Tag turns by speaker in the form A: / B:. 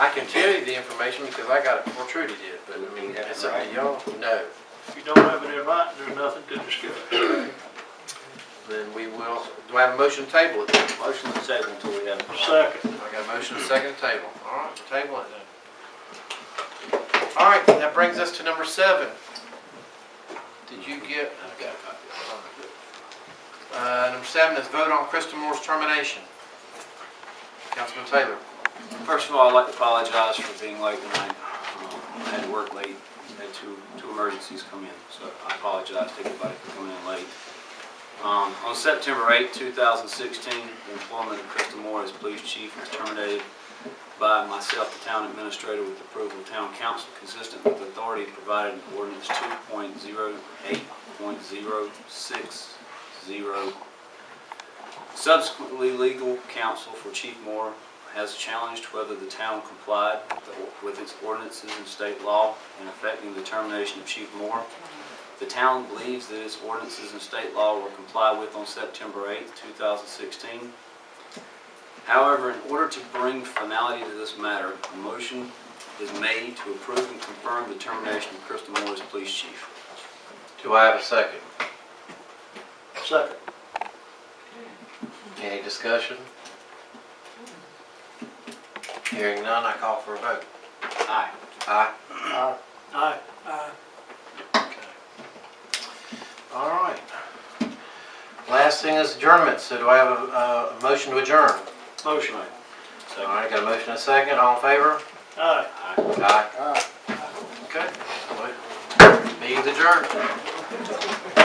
A: I can tell you the information because I got it before Trudy did, but I mean, if it's up to y'all, no.
B: If you don't have it in writing, there's nothing to discuss.
A: Then we will, do I have a motion to table it then?
C: Motion to table until we have.
B: Second,
A: I got a motion, and a second to table. All right, we'll table it then. All right, that brings us to number seven. Did you get? I got a copy. Uh, number seven is vote on Krista Moore's termination. Councilman Taylor.
C: First of all, I'd like to apologize for being late tonight. Um, I had to work late, had two, two emergencies come in, so I apologize to anybody for coming in late. Um, On September 8, 2016, the employment of Krista Moore as police chief was terminated by myself, the town administrator, with approval of town council, consistent with authority provided in ordinance 2.08.060. Subsequently, legal counsel for Chief Moore has challenged whether the town complied with its ordinances and state law in affecting the termination of Chief Moore. The town believes that its ordinances and state law were complied with on September 8, 2016. However, in order to bring finality to this matter, a motion is made to approve and confirm the termination of Crystal Moore as police chief.
A: Do I have a second?
B: second.
A: Any discussion? Hearing none, I call for a vote.
C: Aye.
A: Aye.
B: Aye. Aye.
A: All right. Last thing is adjournment, so do I have a, uh, a motion to adjourn?
B: Motion.
A: All
C: Second.
A: right, got a motion and a second, all in favor?
B: Aye.
C: Aye.
A: Aye. Okay. Meeting's adjourned.